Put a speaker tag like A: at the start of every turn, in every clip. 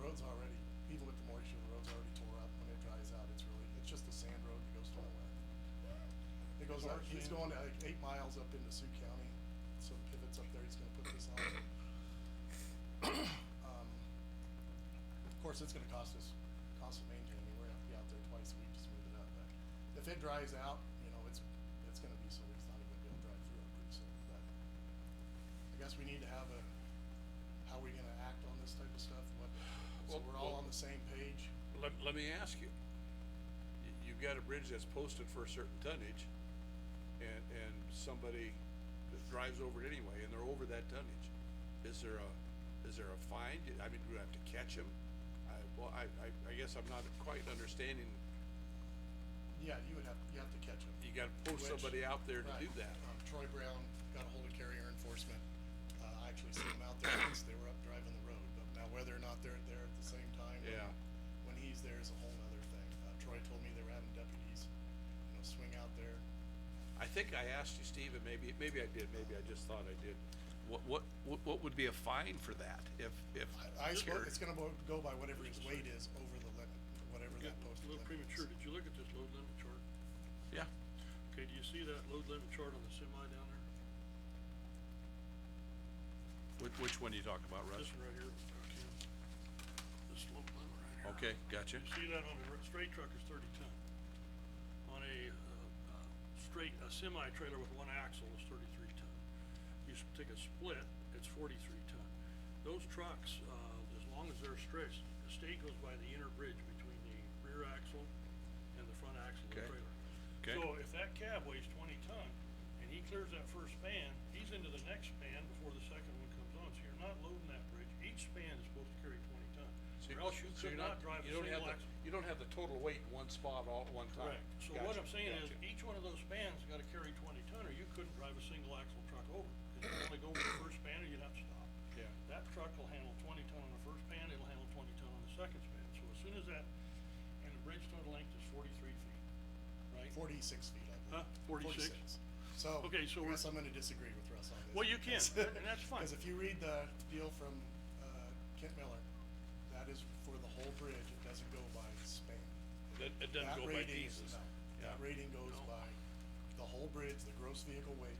A: road's already, even with the moisture, the road's already tore up. When it dries out, it's really, it's just a sand road that goes to nowhere. It goes, out-
B: Large
A: he's
B: sand.
A: going like eight miles up into Sioux County, so pivots up there, he's gonna put this on. Um, Of course, it's gonna cost us, cost of maintaining, we're gonna have to be out there twice a week to smooth it up, but if it dries out, you know, it's, it's gonna be so it's not even gonna be able to drive through it pretty soon, but I guess we need to have a, how we gonna act on this type of stuff, what, so
B: Well,
A: we're all on
B: well-
A: the same page.
B: Let, let me ask you, Y- you've got a bridge that's posted for a certain tonnage, and, and somebody that drives over it anyway, and they're over that tonnage. Is there a, is there a fine, Do- I mean, do we have to catch them? I, well, I, I, I guess I'm not quite understanding,
A: Yeah, you would have, you have to catch them.
B: you gotta post
A: Which-
B: somebody out there to
A: Right.
B: do that.
A: Um, Troy Brown got a hold of carrier enforcement. Uh, I actually seen him out there once. They were up driving the road, but now whether or not they're there at the same time. when-
B: Yeah.
A: When he's there is a whole nother thing. Uh, Troy told me they were having deputies, you know, swing out there.
B: I think I asked you, Steve, and maybe, maybe I did, maybe I just thought I did. What, what, what- what would be a fine for that if, if?
A: I, I
B: here-
A: suppose it's gonna bo- go by whatever his weight is over the limit, whatever that
C: Yeah, A
A: posted
C: little
A: limit
C: premature,
A: is.
C: did you look at this load limit chart?
B: Yeah,
C: Okay, do you see that load limit chart on the semi down there?
B: which, which one are you talking about,
C: This
B: Russ?
C: one right here, okay. This load limit right here.
B: Okay, gotcha.
C: You see that on a r- straight truck is thirty ton. On a, uh, uh, straight, a semi trailer with one axle is thirty-three ton. You s- take a split, it's forty-three ton. Those trucks, uh, as long as they're stretched, the state goes by the inner bridge between the rear axle and the front axle of the
B: Okay.
C: trailer.
B: Okay.
C: So if that cab weighs twenty ton and he clears that first span, he's into the next span before the second one comes on, so you're not loading that bridge. Each span is supposed to carry twenty ton,
B: So
C: or
B: you-
C: else you
B: so you're
C: could not drive a
B: you don't have
C: single
B: the-
C: axle.
B: You don't have the total weight in one spot all at one time.
C: Correct. So what
B: Gotcha,
C: I'm saying is,
B: gotcha.
C: each one of those spans gotta carry twenty ton, or you couldn't drive a single axle truck over. Cause you'd only go over the first span, or you'd have to stop.
B: Yeah.
C: That truck will handle twenty ton on the first span, it'll handle twenty ton on the second span, so as soon as that, and the bridge total length is forty-three feet, right?
A: Forty-six feet, I believe.
C: Huh? 46?
A: So,
C: Okay,
A: I
C: so we're-
A: guess I'm gonna disagree with Russ on this.
C: Well, you can,
A: because-
C: and that's fine.
A: Cause if you read the deal from, uh, Kent Miller, that is for the whole bridge, it doesn't go by span.
C: That, it doesn't
A: That
C: go by
A: rating-
C: pieces.
A: no, That
B: Yeah.
A: rating goes
C: No.
A: by the whole bridge, the gross vehicle weight,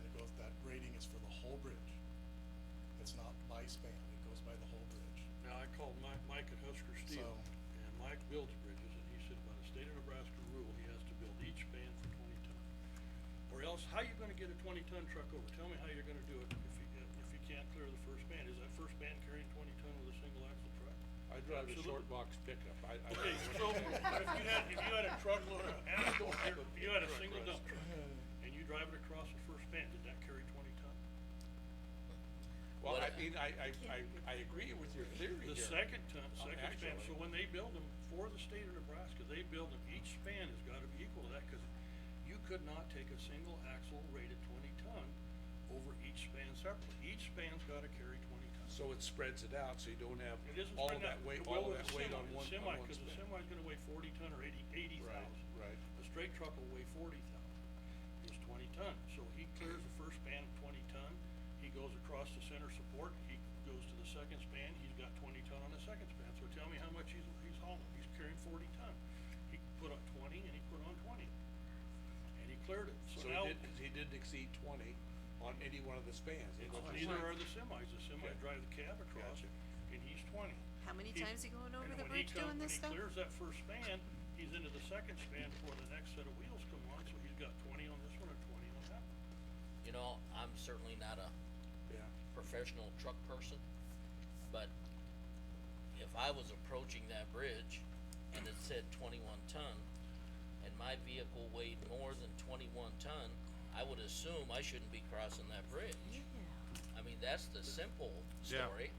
A: and it goes, that rating is for the whole bridge. It's not by span, it goes by the whole bridge.
C: Now, I called Mike, Mike at Husker Steel,
A: So-
C: and Mike builds bridges, and he said by the state of Nebraska rule, he has to build each span for twenty ton. Or else, how you gonna get a twenty ton truck over? Tell me how you're gonna do it if you, if you can't clear the first span. Is that first span carrying twenty ton with a single axle truck?
B: I drive a
C: Absolutely.
B: short box pickup, I, I.
C: Okay, so if you had, if you had a truckload of asphalt, here, if you had a single dump truck, and you drive it across the first span, did that carry twenty ton?
B: Well, I mean, I, I, I, I agree with your theory here.
C: The second ton,
B: Uh,
C: second span, so
B: actually.
C: when they build them for the state of Nebraska, they build them, each span has gotta be equal to that, cause you could not take a single axle rated twenty ton over each span separately, each span's gotta carry twenty tons.
B: So it spreads it out, so you don't have
C: It isn't
B: all of
C: spread
B: that
C: out,
B: weight,
C: the
B: all
C: will
B: of that
C: of the
B: weight
C: semi,
B: on
C: the
B: one,
C: semi,
B: on one
C: cause the
B: span.
C: semi's gonna weigh forty ton or eighty, eighty
B: Right,
C: thousand.
B: right.
C: A straight truck will weigh forty thousand, it's twenty ton, so he clears the first span of twenty ton, he goes across the center support, he goes to the second span, he's got twenty ton on the second span, so tell me how much he's, he's hauling, he's carrying forty ton. He put on twenty and he put on twenty, and he cleared it,
B: So
C: so now,
B: he didn't, he didn't exceed twenty on any one of the spans. is
C: it's
B: what you're
C: neither
B: saying.
C: are the semis, the semi
B: Okay.
C: drive the cab across,
B: Gotcha.
C: and he's twenty.
D: How many
C: He-
D: times he going over
C: and
D: the
C: when he
D: bridge
C: come-
D: doing this stuff?
C: When he clears that first span, he's into the second span before the next set of wheels come on, so he's got twenty on this one and twenty on that one.
E: You know, I'm certainly not a
B: Yeah.
E: professional truck person, but if I was approaching that bridge and it said twenty-one ton, and my vehicle weighed more than twenty-one ton, I would assume I shouldn't be crossing that bridge. I mean, that's the simple
B: Yeah.
E: story.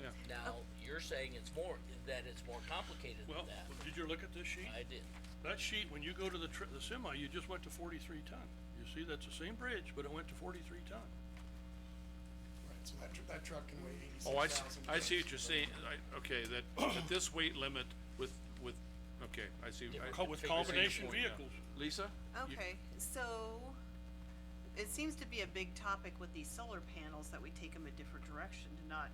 B: Yeah.
E: Now, you're saying it's more, that it's more complicated than
C: Well,
E: that.
C: did you look at this sheet?
E: I did.
C: That sheet, when you go to the tr- the semi, you just went to forty-three ton. You see, that's the same bridge, but it went to forty-three ton.
A: Right, so that, tr- that truck can weigh eighty-six
F: Oh, I, s-
A: thousand.
F: I see what you're saying, I, okay, that, that this weight limit with, with, okay, I see. I-
E: Different
C: Co- With
E: Figures out
C: combination
F: point now.
C: vehicles,
F: Lisa? you-
D: Okay, so it seems to be a big topic with these solar panels that we take them a different direction to not